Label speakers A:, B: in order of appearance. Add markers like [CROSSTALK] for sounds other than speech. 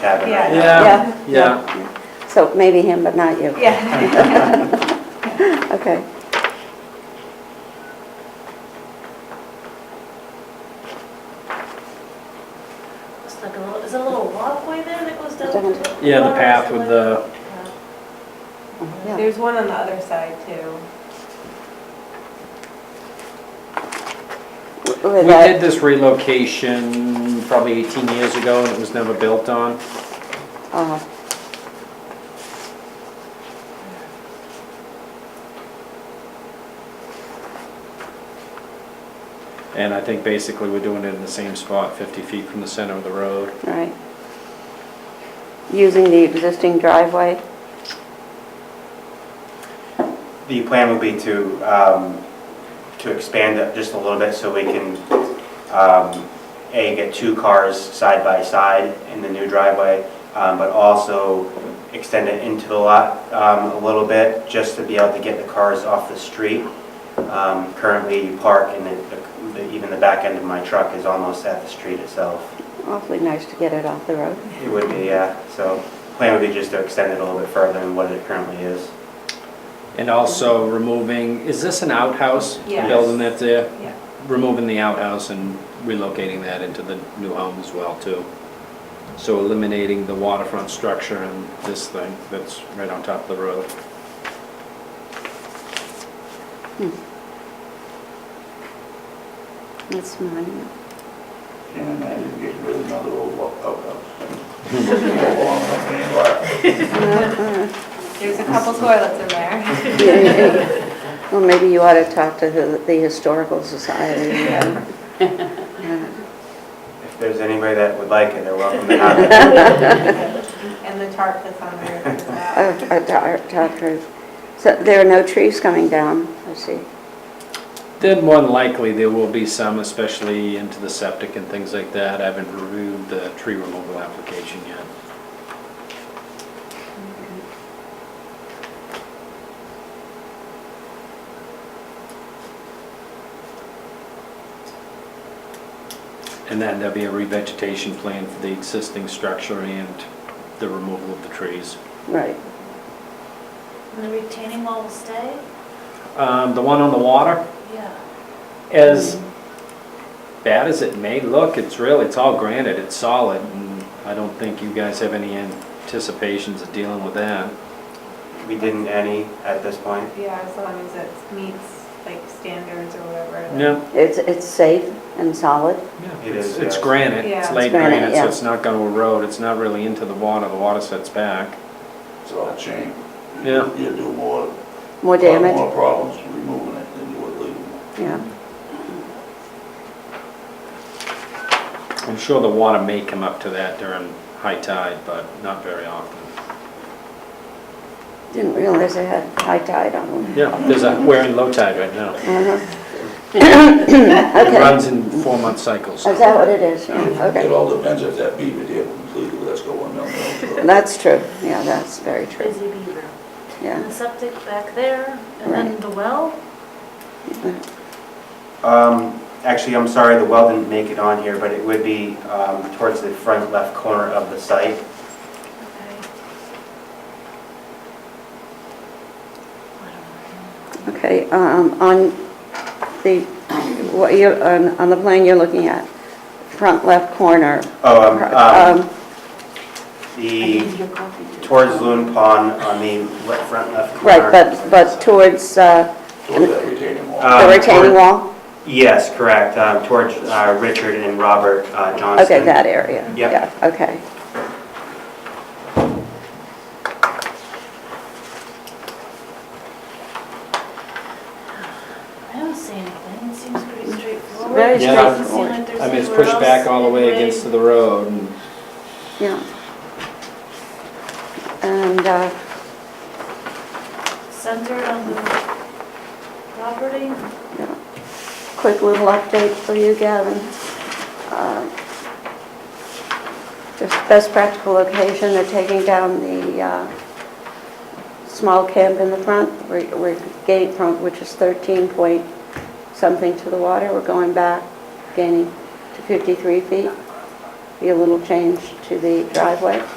A: cabin. right
B: Yeah.
A: now.
C: Yeah.
B: Yeah, yeah.
C: So maybe him, but not you.
B: Yeah.
C: [LAUGHS] Okay.
D: It's like a little, is it a little walkway there that goes down? to the
B: Yeah, the
D: water or
B: path with the-
D: something?
E: [LAUGHS]
C: Yeah.
E: There's one on the other side too.
C: With
B: We did
C: that,
B: this relocation probably 18 years ago, and it was never built on.
C: uh,
B: And I think basically we're doing it in the same spot, 50 feet from the center of the road.
C: right. Using the existing driveway,
A: The plan would be to, um, to expand it just a little bit so we can, um, A, get two cars side by side in the new driveway, um, but also extend it into the lot um, a little bit, just to be able to get the cars off the street. Um, Currently, you park and the- the- even the back end of my truck is almost at the street itself.
C: awfully nice to get it off the road.
A: It would be, yeah, so plan would be just to extend it a little bit further than what it currently is.
B: And also removing, is this an outhouse? The
E: Yes.
B: Building that's there?
E: Yeah.
B: Removing the outhouse and relocating that into the new home as well, too. So eliminating the waterfront structure and this thing that's right on top of the road.
C: That's mine.
F: And I didn't get rid of another old wa- outhouse.
E: There's a couple toilets in there.
C: Well, maybe you ought to talk to the the Historical Society. you know.
A: If there's anybody that would like it, they're welcome to have
C: [LAUGHS]
A: it.
E: And the tarp that's on there. as well.
C: Uh, uh, ta- Talk to, so there are no trees coming down, I see.
B: Then more than likely, there will be some, especially into the septic and things like that. I haven't reviewed the tree removal application yet. And then there'll be a revegetation plan for the existing structure and the removal of the trees.
C: Right.
D: And uh, the retaining wall will stay?
B: Um, The one on the water,
D: Yeah.
B: as bad as it may look, it's really, it's all granite, it's solid, and I don't think you guys have any anticipations of dealing with that.
A: We didn't any at this point.
E: Yeah, as long as it meets like standards or whatever.
B: No.
C: It's, it's safe and solid.
A: It
B: It's
A: is,
B: it's
A: yes.
B: granite,
E: Yeah.
B: it's
E: It's
B: laid
C: granite,
B: granite, so
C: yeah.
B: it's not gonna erode, it's not really into the water, the water sets back.
F: It's all chain.
B: Yeah.
F: You do more.
C: More damage,
F: More problems removing it than you would leaving it.
C: yeah.
B: I'm sure the water may come up to that during high tide, but not very often.
C: Didn't realize they had high tide on them. Uh-huh.
B: Yeah, there's a, we're in low tide right now. It
C: Okay,
B: runs in four-month cycles.
C: is that what it is? Yeah,
F: It
C: okay.
F: all depends if that beaver dam completely lets go or not.
C: That's true, yeah, that's very true,
D: Busy beaver. And
C: yeah.
D: the septic back there, and then
C: Right.
D: the well?
A: Um, Actually, I'm sorry, the well didn't make it on here, but it would be um, towards the front left corner of the site.
D: Okay.
C: Okay, um, on the, what you, on on the plan you're looking at, front left corner.
A: Oh, um, um,
C: Um,
A: the, towards Loon Pond on the le- front left corner.
C: Right, but, but towards uh,
F: Toward that retaining wall.
A: Uh,
C: the
A: Um,
C: retaining
A: toward-
C: wall?
A: Yes, correct, um, towards uh, Richard and Robert uh, Johnston.
C: Okay, that area.
A: Yep.
C: Yeah, okay.
D: I don't see anything, it seems pretty straightforward.
C: very
D: It doesn't seem
C: straightforward.
D: like there's
B: I mean, it's
D: anywhere
B: pushed back
D: else
B: all the way
D: anybody-
B: against the road, and
C: Yeah. And, uh,
D: Centered on the property,
C: yeah. quick little update for you, Gavin. Uh, Just best practical location, they're taking down the uh, small camp in the front, we're we're gate from, which is 13 point something to the water, we're going back, gaining to 53 feet, be a little change to the driveway.